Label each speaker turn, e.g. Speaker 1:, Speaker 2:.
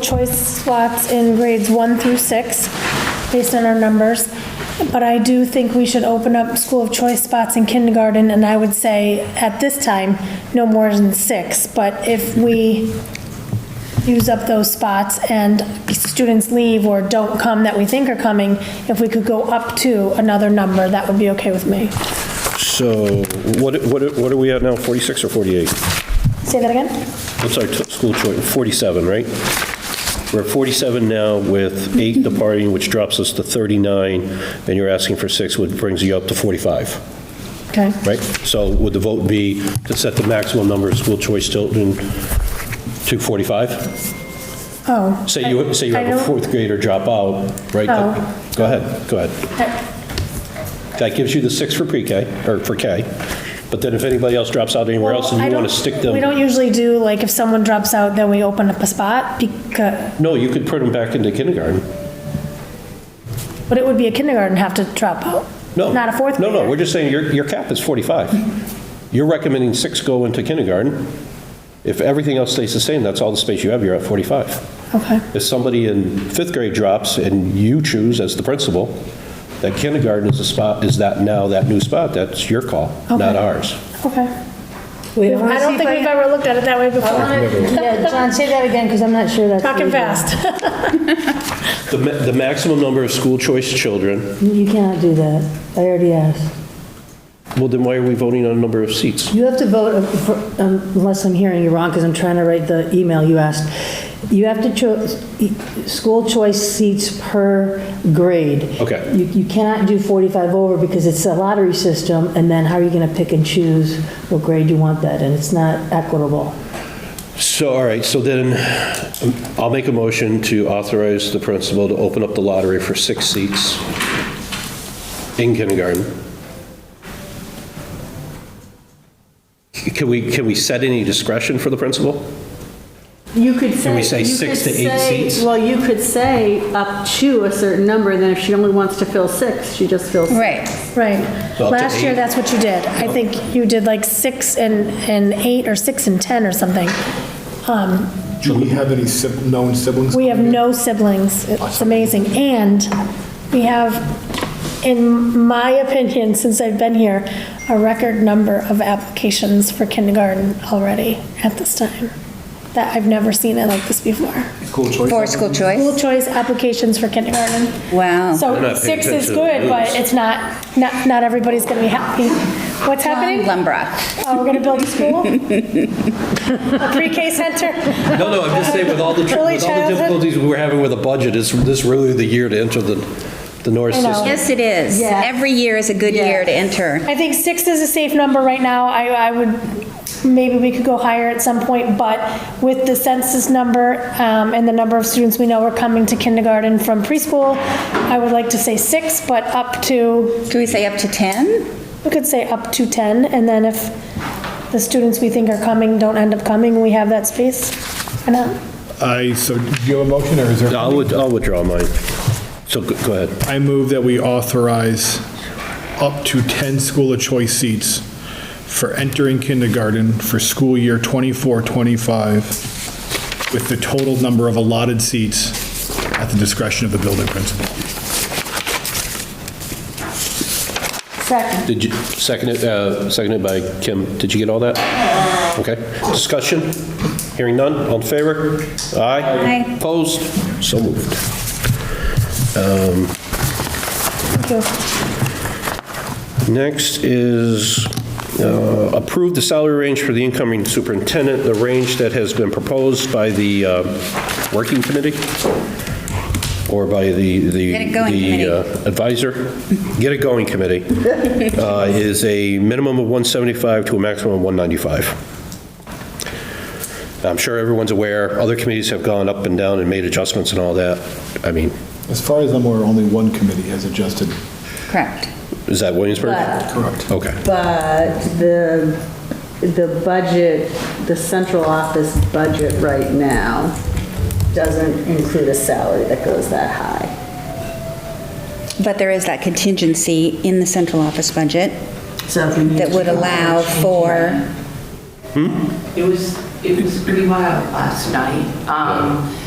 Speaker 1: choice slots in grades one through six, based on our numbers. But I do think we should open up school of choice spots in kindergarten, and I would say, at this time, no more than six. But if we use up those spots and students leave or don't come that we think are coming, if we could go up to another number, that would be okay with me.
Speaker 2: So what, what, what are we at now, 46 or 48?
Speaker 1: Say that again?
Speaker 2: What's our t- school choice, 47, right? We're at 47 now with eight departing, which drops us to 39, and you're asking for six, which brings you up to 45,
Speaker 1: Okay.
Speaker 2: right? So would the vote be to set the maximum number of school choice children to 45?
Speaker 1: Oh.
Speaker 2: Say you, say you
Speaker 1: I
Speaker 2: have a
Speaker 1: don't-
Speaker 2: fourth grader drop out, right?
Speaker 1: Oh.
Speaker 2: Go ahead, go ahead. That gives you the six for pre-K, or for K, but then if anybody else drops out anywhere else and
Speaker 1: I
Speaker 2: you want
Speaker 1: don't-
Speaker 2: to stick them.
Speaker 1: We don't usually do, like, if someone drops out, then we open up a spot, because,
Speaker 2: No, you could put them back into kindergarten.
Speaker 1: but it would be a kindergarten have to drop out.
Speaker 2: No.
Speaker 1: Not a fourth grader.
Speaker 2: No, no, we're just saying your, your cap is 45. You're recommending six go into kindergarten. If everything else stays the same, that's all the space you have, you're at 45.
Speaker 1: Okay,
Speaker 2: If somebody in fifth grade drops and you choose as the principal, that kindergarten is the spot, is that now that new spot, that's your call, not
Speaker 1: Okay.
Speaker 2: ours.
Speaker 1: okay.
Speaker 3: Wait, I wanna
Speaker 1: I
Speaker 3: see
Speaker 1: don't
Speaker 3: if
Speaker 1: think
Speaker 3: I-
Speaker 1: we've ever looked at it that way before.
Speaker 3: Yeah, John, say that again, because I'm not sure that's.
Speaker 1: Talking
Speaker 3: legal.
Speaker 1: fast.
Speaker 2: The, ma- the maximum number of school choice children,
Speaker 3: You cannot do that. I already asked.
Speaker 2: well, then why are we voting on number of seats?
Speaker 3: You have to vote, uh, for- um, unless I'm hearing you wrong, because I'm trying to write the email you asked. You have to choose, school choice seats per grade.
Speaker 2: Okay.
Speaker 3: You you cannot do 45 over, because it's a lottery system, and then how are you going to pick and choose what grade you want that, and it's not equitable.
Speaker 2: So, all right, so then um, I'll make a motion to authorize the principal to open up the lottery for six seats in kindergarten. Can we, can we set any discretion for the principal?
Speaker 4: You could say.
Speaker 2: we say
Speaker 4: you
Speaker 2: six
Speaker 4: could
Speaker 2: to eight
Speaker 4: say-
Speaker 2: seats?
Speaker 4: Well, you could say up to a certain number, and then if she only wants to fill six, she just fills. six.
Speaker 5: Right.
Speaker 1: Right.
Speaker 2: So up to
Speaker 1: Last year,
Speaker 2: eight.
Speaker 1: that's what you did. I think you did like six and, and eight, or six and 10 or something. Um,
Speaker 6: Do we have any sib- known siblings?
Speaker 1: We have no siblings. It's amazing. And we have, in my opinion, since I've been here, a record number of applications for kindergarten already at this time. That I've never seen it like this before.
Speaker 6: School choice?
Speaker 5: For
Speaker 1: School
Speaker 5: school choice?
Speaker 1: choice applications for kindergarten.
Speaker 5: Wow.
Speaker 2: They're
Speaker 1: So
Speaker 2: not paying
Speaker 1: six is
Speaker 2: attention to the
Speaker 1: good, but
Speaker 2: news.
Speaker 1: it's not, not, not everybody's going to be happy. What's happening?
Speaker 5: Glenbrook.
Speaker 1: Oh, we're going to build a school? A pre-K center?
Speaker 2: No, no, I'm just saying with all the, tr-
Speaker 1: Early
Speaker 2: with all the
Speaker 1: childhood?
Speaker 2: difficulties we're having with a budget, is this really the year to enter the, the Norris
Speaker 1: I know.
Speaker 2: system?
Speaker 5: Yes, it is.
Speaker 4: Yeah.
Speaker 5: Every year is a good year to enter.
Speaker 1: I think six is a safe number right now. I, I would, maybe we could go higher at some point, but with the census number um, and the number of students we know are coming to kindergarten from preschool, I would like to say six, but up to,
Speaker 5: Can we say up to 10?
Speaker 1: we could say up to 10, and then if the students we think are coming don't end up coming, we have that space. uh, Why not?
Speaker 6: I, so do you have a motion or is there?
Speaker 2: I'll, wit- I'll withdraw mine. So go go ahead.
Speaker 6: I move that we authorize up to 10 school of choice seats for entering kindergarten for school year 24, 25, with the total number of allotted seats at the discretion of the building principal.
Speaker 3: Second.
Speaker 2: Did you, seconded, uh, seconded by Kim, did you get all that? Okay, discussion, hearing none, all in favor? Aye.
Speaker 5: Aye.
Speaker 2: Opposed? So moved.
Speaker 1: Thank you.
Speaker 2: Next is uh, approve the salary range for the incoming superintendent, the range that has been proposed by the uh, working committee or by the, the
Speaker 5: Get it going
Speaker 2: the, uh, advisor, get it going committee, uh, is a minimum of 175 to a maximum of 195. I'm sure everyone's aware, other committees have gone up and down and made adjustments and all that. I mean,
Speaker 6: As far as I'm aware, only one committee has adjusted.
Speaker 5: Correct.
Speaker 2: is that Williamsburg?
Speaker 6: Correct.
Speaker 2: Okay.
Speaker 4: But the, the budget, the central office budget right now doesn't include a salary that goes that high.
Speaker 5: But there is that contingency in the central office budget
Speaker 4: So if we need
Speaker 5: that would
Speaker 4: to-
Speaker 5: allow for,
Speaker 7: It was, it was pretty wild last night. Um,